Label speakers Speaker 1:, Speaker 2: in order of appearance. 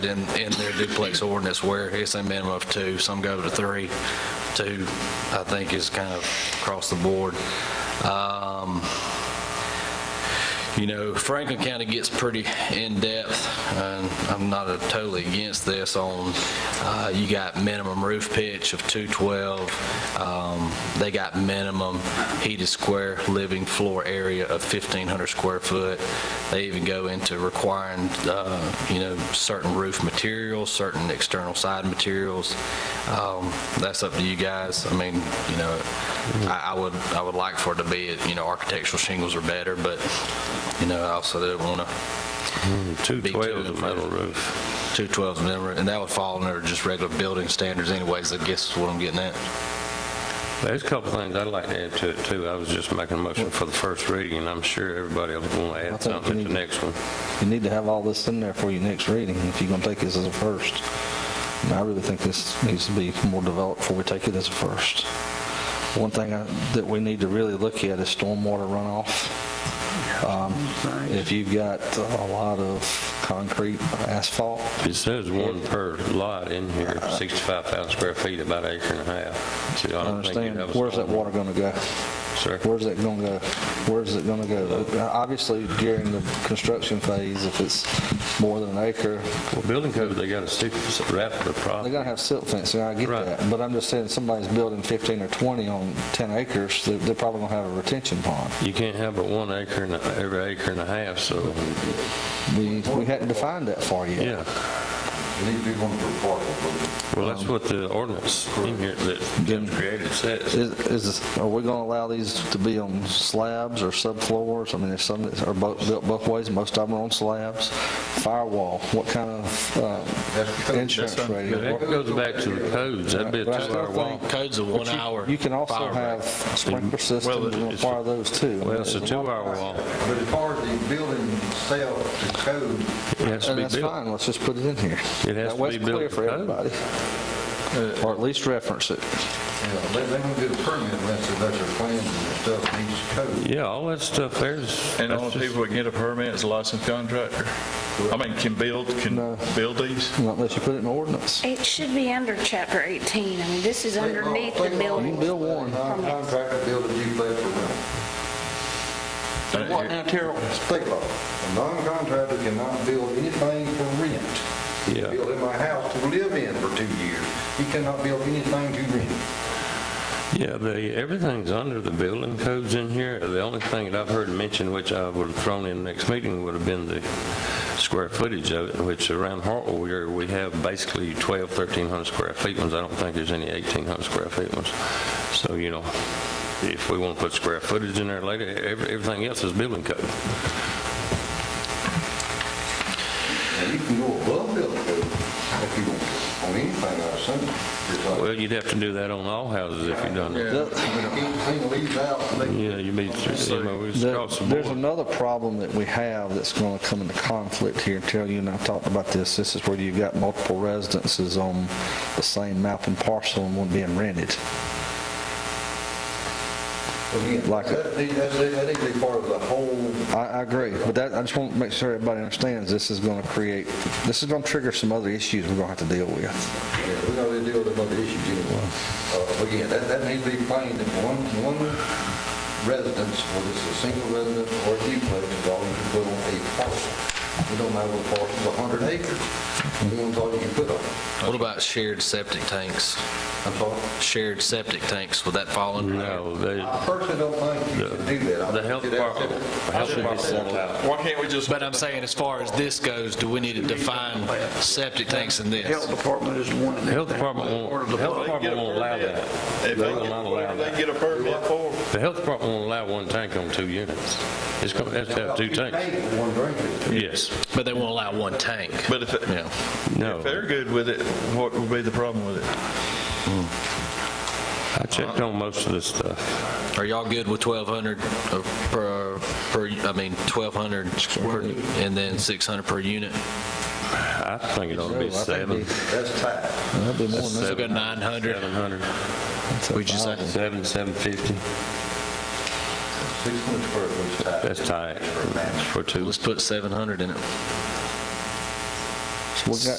Speaker 1: that in, in their duplex ordinance where it's a minimum of two, some go to three. Two, I think, is kind of across the board. Um, you know, Franklin County gets pretty in-depth, and I'm not uh, totally against this on, uh, you got minimum roof pitch of 212, um, they got minimum heated square living floor area of 1,500 square foot. They even go into requiring, uh, you know, certain roof materials, certain external side materials. Um, That's up to you guys. I mean, you know, I I would, I would like for it to be, you know, architectural shingles are better, but, you know, I also don't want to,
Speaker 2: Two
Speaker 1: Big
Speaker 2: twelve
Speaker 1: two.
Speaker 2: is metal roof.
Speaker 1: 212's minimum, and that would fall under just regular building standards anyways, I guess is what I'm getting at.
Speaker 2: There's a couple things I'd like to add to it, too. I was just making a motion for the first reading, and I'm sure everybody will want to
Speaker 3: I
Speaker 2: add
Speaker 3: think we
Speaker 2: something to
Speaker 3: need
Speaker 2: the next one.
Speaker 3: You need to have all this in there for your next reading if you're going to take this as a first. And I really think this needs to be more developed before we take it as a first. One thing I- that we need to really look at is stormwater runoff. Um, If you've got a lot of concrete, asphalt,
Speaker 2: It says one per lot in here, 65,000 square feet, about an acre and a half. So I
Speaker 3: I
Speaker 2: don't think you'd
Speaker 3: understand,
Speaker 2: have a
Speaker 3: where's that
Speaker 2: storm-
Speaker 3: water going to go?
Speaker 2: Sir?
Speaker 3: Where's that going to go? Where's it going to go? Obviously, during the construction phase, if it's more than an acre,
Speaker 2: Well, building code, they got to stick, wrap the
Speaker 3: they're
Speaker 2: problem.
Speaker 3: going to have silt fencing, I get
Speaker 2: Right.
Speaker 3: that. But I'm just saying, somebody's building 15 or 20 on 10 acres, they're- they're probably going to have a retention pond.
Speaker 2: You can't have but one acre and, a- every acre and a half, so,
Speaker 3: We we hadn't defined that for you.
Speaker 2: yeah. Well, that's what the ordinance in here that Jim created says.
Speaker 3: Is, is- are we going to allow these to be on slabs or subfloors? I mean, there's some that are both, built both ways, most of them are on slabs. Firewall, what kind of uh, insurance rating?
Speaker 2: But That goes back to the codes. That'd be a
Speaker 3: But I still
Speaker 2: two-hour
Speaker 3: think-
Speaker 2: walk.
Speaker 1: Codes of one
Speaker 3: But you-
Speaker 1: hour.
Speaker 3: You can also
Speaker 1: fire
Speaker 3: have
Speaker 1: rate.
Speaker 3: sprinkler systems and
Speaker 2: it's-
Speaker 3: require those too.
Speaker 2: Well, it's a two-hour walk.
Speaker 4: But as far as the building itself, the code,
Speaker 2: It has to
Speaker 3: And
Speaker 2: be
Speaker 3: that's
Speaker 2: built.
Speaker 3: fine, let's just put it in here.
Speaker 2: It has
Speaker 3: That
Speaker 2: to
Speaker 3: way
Speaker 2: be
Speaker 3: it's
Speaker 2: built
Speaker 3: clear
Speaker 2: to
Speaker 3: for
Speaker 2: code.
Speaker 3: everybody. Or at least reference it.
Speaker 4: uh, they they don't get a permit unless there's their plans and stuff needs code.
Speaker 2: Yeah, all that stuff there's.
Speaker 5: And the only people that get a permit is a licensed contractor. I mean, can build, can
Speaker 3: No.
Speaker 5: build these?
Speaker 3: Not Unless you put it in ordinance.
Speaker 6: It should be under chapter 18. I mean, this is
Speaker 4: State law-
Speaker 6: underneath the
Speaker 4: state law
Speaker 6: building.
Speaker 4: won't
Speaker 3: Bill
Speaker 4: let a
Speaker 3: Warren.
Speaker 4: Non-contractor build a duplex for rent.
Speaker 5: And
Speaker 4: State law, a non-contractor cannot build anything for rent. He
Speaker 2: Yeah.
Speaker 4: Built in my house to live in for two years. He cannot build anything to rent.
Speaker 2: Yeah, the, everything's under the building codes in here. The only thing that I've heard mentioned, which I would have thrown in next meeting, would have been the square footage of it, which around Hartwell, we are- we have basically 12, 1,300 square feet ones. I don't think there's any 1,800 square feet ones. So, you know, if we want to put square footage in there later, every- everything else is building code.
Speaker 4: Now, you can go above building code if you want, on anything, I assume. It's like-
Speaker 2: Well, you'd have to do that on all houses if you done it.
Speaker 4: Anything leaves out, they
Speaker 2: Yeah, you'd be, you know, it's
Speaker 3: There-
Speaker 2: across the
Speaker 3: There's
Speaker 2: board.
Speaker 3: another problem that we have that's going to come into conflict here, Terry, you and I talked about this, this is where you've got multiple residences on the same map and parcel and one being rented.
Speaker 4: Again,
Speaker 3: Like-
Speaker 4: that- That's, that needs to be part of the whole,
Speaker 3: I, I agree, but that, I just want to make sure everybody understands this is going to create, this is going to trigger some other issues we're going to have to deal with.
Speaker 4: yeah, we're gonna deal with other issues anyway. Uh, but Again, that, that needs to be plain, that one, one residence, whether it's a single residence or a duplex, is all you can put on a parcel. We don't matter what parcel, a hundred acres, one's all you can put on.
Speaker 1: What about shared septic tanks?
Speaker 4: I'm sorry.
Speaker 1: Shared septic tanks, would that fall under? there?
Speaker 2: No, they,
Speaker 4: I personally don't think you should do that. I
Speaker 2: the
Speaker 4: think
Speaker 2: health
Speaker 4: you'd have to-
Speaker 2: department, the health department won't allow it.
Speaker 5: Why can't we just?
Speaker 1: But I'm saying, as far as this goes, do we need to define septic tanks in this?
Speaker 7: Health department is the one that...
Speaker 2: Health department won't, the health
Speaker 5: They get
Speaker 2: department
Speaker 5: a
Speaker 2: won't allow
Speaker 5: permit.
Speaker 2: that.
Speaker 5: If
Speaker 2: They
Speaker 5: they
Speaker 2: will
Speaker 5: get-
Speaker 2: not allow
Speaker 5: whatever
Speaker 2: that.
Speaker 5: they get a permit for,
Speaker 2: The health department won't allow one tank on two units. It's going to have to have two tanks.
Speaker 4: Hey, One drink is.
Speaker 2: Yes.
Speaker 1: But they won't allow one tank.
Speaker 5: but if, it-
Speaker 1: Yeah.
Speaker 2: No.
Speaker 5: if they're good with it, what would be the problem with it?
Speaker 2: I checked on most of this stuff.
Speaker 1: Are y'all good with 1,200 of- per, per, I mean, 1,200 per- and then 600 per unit?
Speaker 2: I think it ought to
Speaker 3: No, I
Speaker 2: be
Speaker 3: think
Speaker 2: seven,
Speaker 4: That's tight.
Speaker 3: That'd be more than
Speaker 1: So go 900,
Speaker 2: seven hundred,
Speaker 1: would you say?
Speaker 2: seven, seven fifty.
Speaker 4: Six hundred square foot's tight.
Speaker 2: That's tight for two.
Speaker 1: Let's put 700 in it.
Speaker 3: We got,